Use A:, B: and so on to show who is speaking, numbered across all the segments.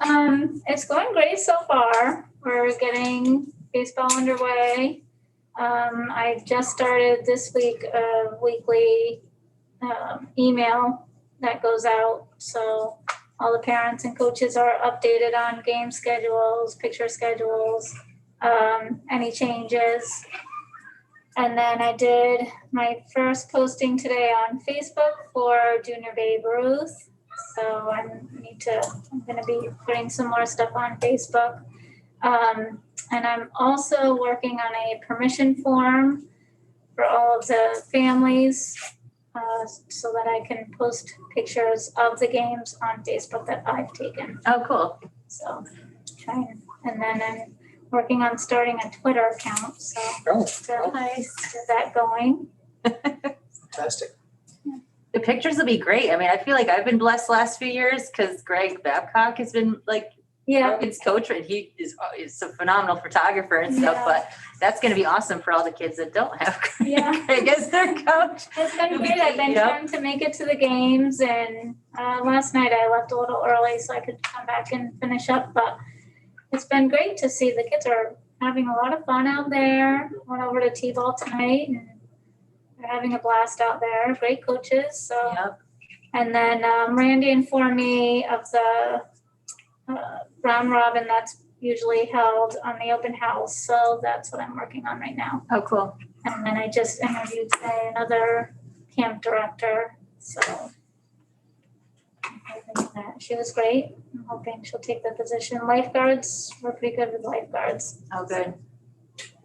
A: Um, it's going great so far. We're getting baseball underway. Um, I just started this week a weekly um, email that goes out. So all the parents and coaches are updated on game schedules, picture schedules, um, any changes. And then I did my first posting today on Facebook for Junior Babe Ruth. So I need to, I'm gonna be putting some more stuff on Facebook. Um, and I'm also working on a permission form for all of the families, uh, so that I can post pictures of the games on Facebook that I've taken.
B: Oh, cool.
A: So, trying, and then I'm working on starting a Twitter account, so.
C: Oh.
A: so
B: Nice.
A: get that going.
C: Fantastic.
B: The pictures will be great. I mean, I feel like I've been blessed last few years because Greg Babcock has been like
A: Yeah,
B: Rogan's coach, and he is is a phenomenal photographer and stuff.
A: Yeah.
B: But that's going to be awesome for all the kids that don't have
A: Yeah.
B: Greg as their coach.
A: It's been great. I've been
B: Yep.
A: trying to make it to the games and uh, last night I left a little early so I could come back and finish up, but it's been great to see the kids are having a lot of fun out there. Went over to T-ball tonight and they're having a blast out there. Great coaches, so.
B: Yep.
A: And then um, Randy informed me of the uh, round robin that's usually held on the open house, so that's what I'm working on right now.
B: Oh, cool.
A: And then I just interviewed today another camp director, so. I'm hoping that- She was great. I'm hoping she'll take the position. Lifeguards, we're pretty good with lifeguards.
B: Oh, good.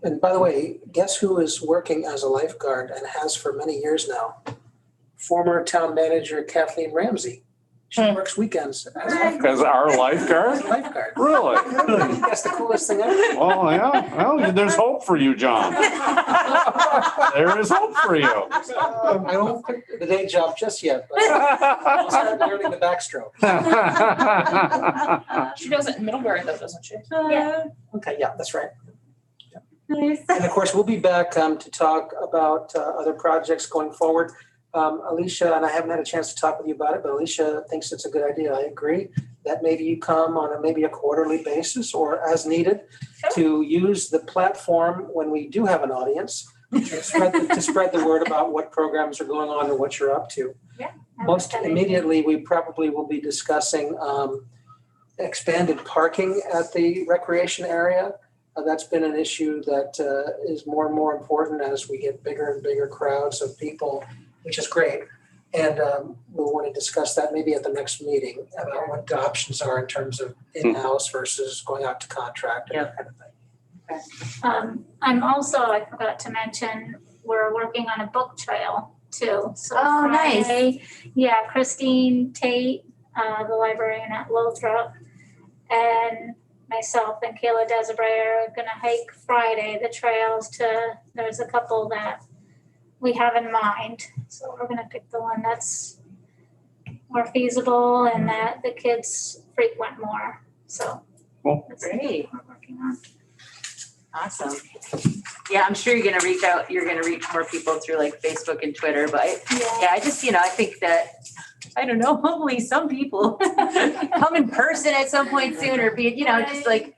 C: And by the way, guess who is working as a lifeguard and has for many years now? Former town manager Kathleen Ramsey. She works weekends as a lifeguard.
D: As our lifeguard?
C: As a lifeguard.
D: Really?
C: That's the coolest thing ever.
D: Well, yeah, well, there's hope for you, John. There is hope for you.
C: Uh, I won't quit the day job just yet, but I'll start learning the backstroke.
E: She does it in Middlebury though, doesn't she?
A: Yeah.
C: Okay, yeah, that's right.
B: Nice.
C: And of course, we'll be back um, to talk about uh, other projects going forward. Um, Alicia, and I haven't had a chance to talk with you about it, but Alicia thinks it's a good idea. I agree that maybe you come on a maybe a quarterly basis or as needed to use the platform when we do have an audience to spread the, to spread the word about what programs are going on and what you're up to.
A: I like
C: Most
A: that idea.
C: immediately, we probably will be discussing um, expanded parking at the recreation area. Uh, That's been an issue that uh, is more and more important as we get bigger and bigger crowds of people, which is great. And um, we'll want to discuss that maybe at the next meeting about what the options are in terms of in-house versus going out to contract and that kind of thing.
A: Um, I'm also, I forgot to mention, we're working on a book trail too. So
B: Oh, nice.
A: Friday, Yeah, Christine Tate, uh, the librarian at Lothrop, and myself and Kayla Desiree are gonna hike Friday, the trails to, there's a couple that we have in mind. So we're gonna pick the one that's more feasible and that the kids frequent more, so.
D: Cool.
A: that's what
B: Great.
A: We're working on.
B: Awesome. Yeah, I'm sure you're gonna reach out, you're gonna reach more people through like Facebook and Twitter, but I- yeah, I just, you know, I think that, I don't know, hopefully some people come in person at some point soon or be, you know, just like,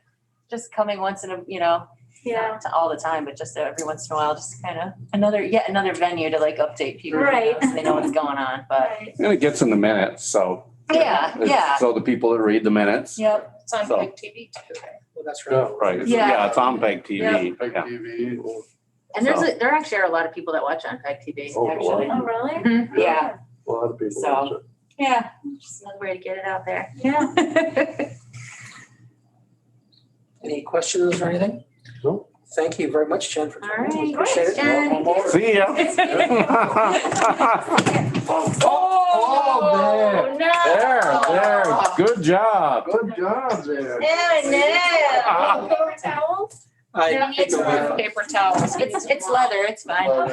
B: just coming once in a, you know,
A: Yeah.
B: not to all the time, but just every once in a while, just kind of another, yet another venue to like update people. you know,
A: Right.
B: So they know what's going on, but
A: Right.
D: And it gets in the minutes, so.
B: yeah, yeah,
D: So the people that read the minutes.
B: yep,
E: It's on
D: So.
E: big TV too.
C: Well, that's
F: Yeah,
C: right.
D: Right, it's-
B: Yeah.
D: yeah, it's on Peg TV.
F: Peg
D: yeah.
F: TV or
B: and there's, a- there actually are a lot of people that watch on Peg TV,
F: Oh, a lot.
B: actually.
A: Oh, really?
B: Mhm, Yeah,
F: a lot of people.
B: So.
F: watch it.
B: yeah, just another way to get it out there.
A: Yeah.
C: Any questions or anything?
F: No.
C: Thank you very much, Jen, for
B: All
C: joining us. We
B: right.
C: Appreciate it.
B: Jen.
C: Welcome aboard.
D: See ya.
F: Oh,
D: There, there, good job.
F: Good job there.
D: Ah.
A: Paper towels?
C: I-
A: Yeah,
E: It's with paper towels.
B: It's, it's leather, it's fine.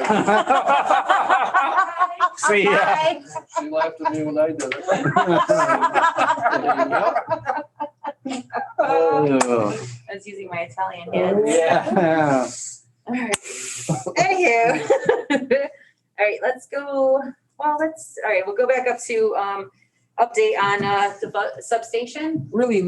D: See ya.
B: Bye.
F: She laughed at me when I did
B: I
F: it.
B: was using my Italian hand.
D: Oh. Yeah.
B: Alright. Anywho. Alright, let's go, well, let's, alright, we'll go back up to, um, update on, uh, the bu- substation.
C: Really